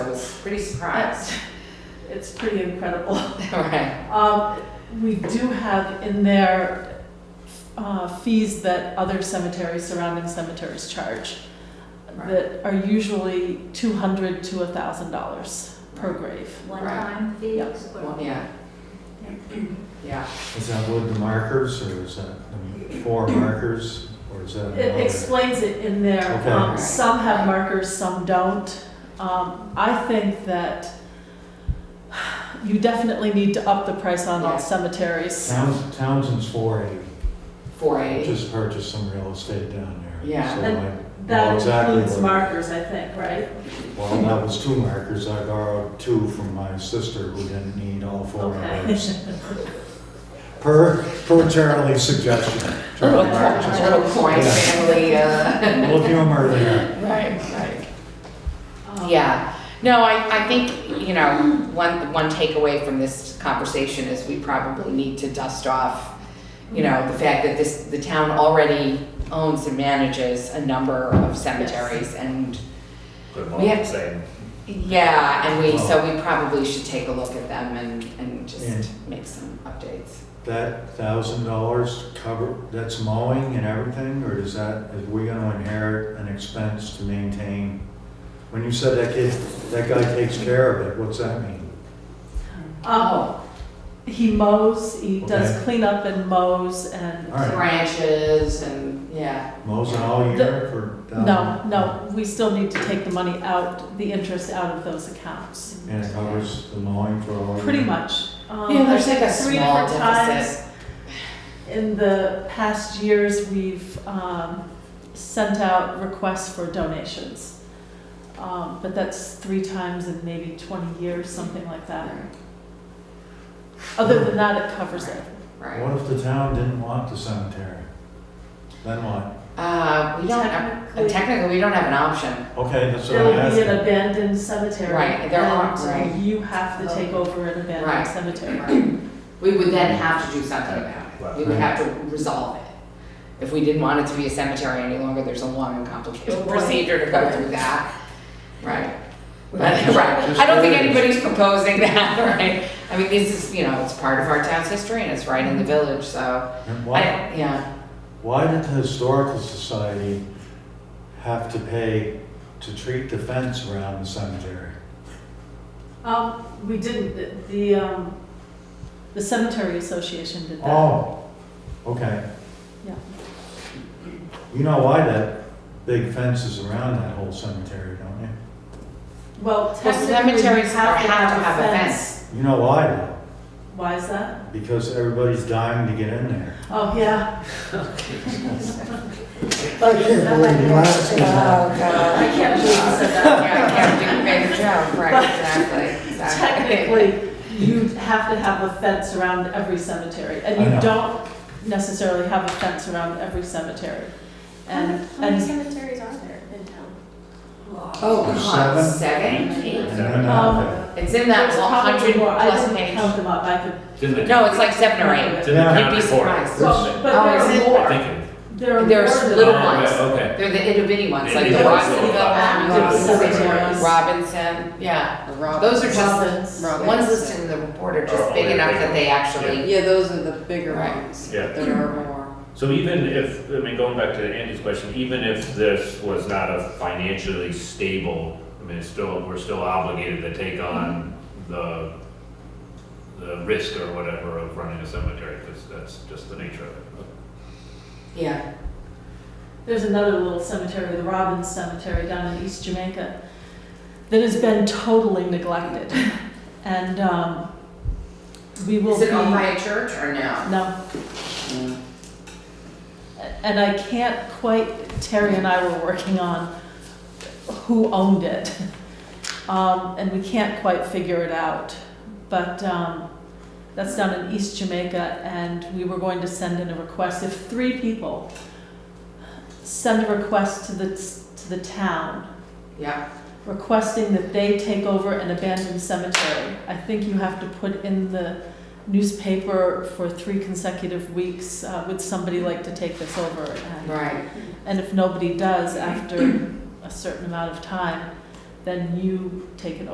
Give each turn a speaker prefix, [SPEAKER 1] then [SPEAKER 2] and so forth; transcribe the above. [SPEAKER 1] Pretty surprised.
[SPEAKER 2] It's pretty incredible.
[SPEAKER 1] Right.
[SPEAKER 2] Um, We do have in there uh, fees that other cemeteries, surrounding cemeteries charge that are usually $200 to $1,000 per grave.
[SPEAKER 3] One-time
[SPEAKER 2] Yep.
[SPEAKER 3] fees
[SPEAKER 1] Well,
[SPEAKER 3] or?
[SPEAKER 1] yeah. Yeah,
[SPEAKER 4] Is that with the markers, or is that the four markers, or is that?
[SPEAKER 2] It explains it in there.
[SPEAKER 4] Okay.
[SPEAKER 2] Um, Some have markers, some don't. Um, I think that you definitely need to up the price on
[SPEAKER 1] Yeah.
[SPEAKER 2] all cemeteries.
[SPEAKER 4] Towns- Townsend's four eighty,
[SPEAKER 1] four eighty.
[SPEAKER 4] just purchased some real estate down there.
[SPEAKER 1] Yeah.
[SPEAKER 4] So
[SPEAKER 2] And
[SPEAKER 4] I- well,
[SPEAKER 2] That
[SPEAKER 4] exactly
[SPEAKER 2] includes
[SPEAKER 4] what-
[SPEAKER 2] markers, I think, right?
[SPEAKER 4] Well, that was two markers, I borrowed two from my sister who didn't need all four of
[SPEAKER 2] Okay.
[SPEAKER 4] those. Per, per Charlie's suggestion. Charlie marked his-
[SPEAKER 1] Little coin
[SPEAKER 4] Yeah.
[SPEAKER 1] family, uh.
[SPEAKER 4] We'll give him earlier.
[SPEAKER 1] Right, right.
[SPEAKER 2] Um,
[SPEAKER 1] Yeah, no, I, I think, you know, one, one takeaway from this conversation is we probably need to dust off, you know, the fact that this, the town already owns and manages a number of cemeteries and,
[SPEAKER 5] Put them all in
[SPEAKER 1] Yeah.
[SPEAKER 5] the same.
[SPEAKER 1] yeah, and we, so we probably should take a look at them and, and just make some updates.
[SPEAKER 4] That thousand dollars cover, that's mowing and everything, or does that, is we gonna inherit an expense to maintain? When you said that kid, that guy takes care of it, what's that mean?
[SPEAKER 2] Um,
[SPEAKER 1] Oh,
[SPEAKER 2] He mows, he
[SPEAKER 4] Okay.
[SPEAKER 2] does cleanup and mows and,
[SPEAKER 4] All right,
[SPEAKER 1] Branches and, yeah,
[SPEAKER 4] mows it all year for thousand?
[SPEAKER 2] no, no, we still need to take the money out, the interest out of those accounts,
[SPEAKER 4] And it covers the mowing for all year?
[SPEAKER 2] pretty much. Um,
[SPEAKER 1] Yeah, there's like a
[SPEAKER 2] three
[SPEAKER 1] small
[SPEAKER 2] different
[SPEAKER 1] deficit.
[SPEAKER 2] times In the past years, we've um, sent out requests for donations. Um, But that's three times in maybe 20 years, something like that. Other than that, it covers it.
[SPEAKER 1] right.
[SPEAKER 4] What if the town didn't want the cemetery? Then what?
[SPEAKER 1] Uh, we don't,
[SPEAKER 2] Technically-
[SPEAKER 1] technically, we don't have an option.
[SPEAKER 4] Okay, that's what
[SPEAKER 2] There
[SPEAKER 4] I'm
[SPEAKER 2] will be an
[SPEAKER 4] asking.
[SPEAKER 2] abandoned cemetery.
[SPEAKER 1] Right, there are,
[SPEAKER 2] and
[SPEAKER 1] right.
[SPEAKER 2] You have to take over an
[SPEAKER 1] Right.
[SPEAKER 2] abandoned cemetery.
[SPEAKER 1] Right. We would then have to do something about it. We would have to resolve it. If we didn't want it to be a cemetery any longer, there's a long and complicated
[SPEAKER 3] Right.
[SPEAKER 1] procedure to go through that. Right. But,
[SPEAKER 4] Just-
[SPEAKER 1] right.
[SPEAKER 4] just
[SPEAKER 1] I don't think
[SPEAKER 4] curious.
[SPEAKER 1] anybody's proposing that, right? I mean, this is, you know, it's part of our town's history and it's right in the village, so.
[SPEAKER 4] And
[SPEAKER 1] I,
[SPEAKER 4] why-
[SPEAKER 1] yeah,
[SPEAKER 4] Why did the historical society have to pay to treat the fence around the cemetery?
[SPEAKER 2] Um, we didn't, the- the, um, the cemetery association did that.
[SPEAKER 4] Oh, okay.
[SPEAKER 2] Yeah.
[SPEAKER 4] You know why that big fence is around that whole cemetery, don't you?
[SPEAKER 2] Well, technically, you have
[SPEAKER 1] cemeteries
[SPEAKER 2] to
[SPEAKER 1] are-
[SPEAKER 2] have a fence.
[SPEAKER 4] You know why though?
[SPEAKER 2] Why is that?
[SPEAKER 4] Because everybody's dying to get in there.
[SPEAKER 2] Oh, yeah,
[SPEAKER 6] I can't believe you
[SPEAKER 4] Oh,
[SPEAKER 6] asked me that.
[SPEAKER 2] I can't believe you said
[SPEAKER 1] yeah,
[SPEAKER 2] that.
[SPEAKER 1] I can't do a better job, right, exactly, exactly.
[SPEAKER 2] Technically, you have to have a fence around every cemetery, and
[SPEAKER 4] I know.
[SPEAKER 2] you don't necessarily have a fence around every cemetery. And,
[SPEAKER 7] How many
[SPEAKER 2] and,
[SPEAKER 7] cemeteries are there in town?
[SPEAKER 1] Oh,
[SPEAKER 4] There's
[SPEAKER 1] God,
[SPEAKER 4] seven?
[SPEAKER 1] seven?
[SPEAKER 4] And
[SPEAKER 1] Eight?
[SPEAKER 4] then,
[SPEAKER 6] Um,
[SPEAKER 4] uh,
[SPEAKER 1] It's in that
[SPEAKER 2] There's
[SPEAKER 1] one
[SPEAKER 2] probably
[SPEAKER 1] hundred
[SPEAKER 2] more. I
[SPEAKER 1] plus
[SPEAKER 2] didn't
[SPEAKER 1] page.
[SPEAKER 2] count them up, I could,
[SPEAKER 5] It's in the,
[SPEAKER 1] No, it's like seven or eight.
[SPEAKER 5] it's in the
[SPEAKER 4] Yeah.
[SPEAKER 5] town
[SPEAKER 1] You'd be
[SPEAKER 5] report.
[SPEAKER 1] surprised.
[SPEAKER 2] well,
[SPEAKER 1] Oh,
[SPEAKER 2] but
[SPEAKER 1] is
[SPEAKER 2] there
[SPEAKER 1] it?
[SPEAKER 2] are
[SPEAKER 5] I
[SPEAKER 2] more,
[SPEAKER 5] think it-
[SPEAKER 2] there are more
[SPEAKER 1] There's
[SPEAKER 2] than
[SPEAKER 1] little
[SPEAKER 2] that.
[SPEAKER 1] ones.
[SPEAKER 5] Oh, okay,
[SPEAKER 1] They're the itty bitty ones, like the
[SPEAKER 5] Itty-bitty
[SPEAKER 1] Watsonville,
[SPEAKER 5] ones.
[SPEAKER 2] Cemeteries.
[SPEAKER 1] Robinson, yeah. Those are just,
[SPEAKER 2] Robins.
[SPEAKER 1] the ones listed in the report are just
[SPEAKER 5] Oh,
[SPEAKER 1] big
[SPEAKER 5] yeah,
[SPEAKER 1] enough
[SPEAKER 5] big
[SPEAKER 1] that they actually,
[SPEAKER 8] Yeah, those are the bigger
[SPEAKER 1] Right.
[SPEAKER 8] ones.
[SPEAKER 5] Yeah.
[SPEAKER 8] but There are more.
[SPEAKER 5] So even if, I mean, going back to Andy's question, even if this was not a financially stable, I mean, it's still, we're still obligated to take on
[SPEAKER 1] Mm-hmm.
[SPEAKER 5] the, the risk or whatever of running a cemetery, because that's just the nature of it.
[SPEAKER 1] yeah,
[SPEAKER 2] There's another little cemetery, the Robbins Cemetery down in East Jamaica, that has been totally neglected. And um, we will
[SPEAKER 1] is
[SPEAKER 2] be.
[SPEAKER 1] it Mm. owned by a church or no?
[SPEAKER 2] No, and I can't quite, Terry and I were working on who owned it. Um, And we can't quite figure it out. But um, that's down in East Jamaica, and we were going to send in a request. If three people send a request to the, to the town
[SPEAKER 1] Yeah,
[SPEAKER 2] requesting that they take over an abandoned cemetery. I think you have to put in the newspaper for three consecutive weeks, uh, would somebody like to take this over? And-
[SPEAKER 1] right,
[SPEAKER 2] And if nobody does after a certain amount of time, then you take it over.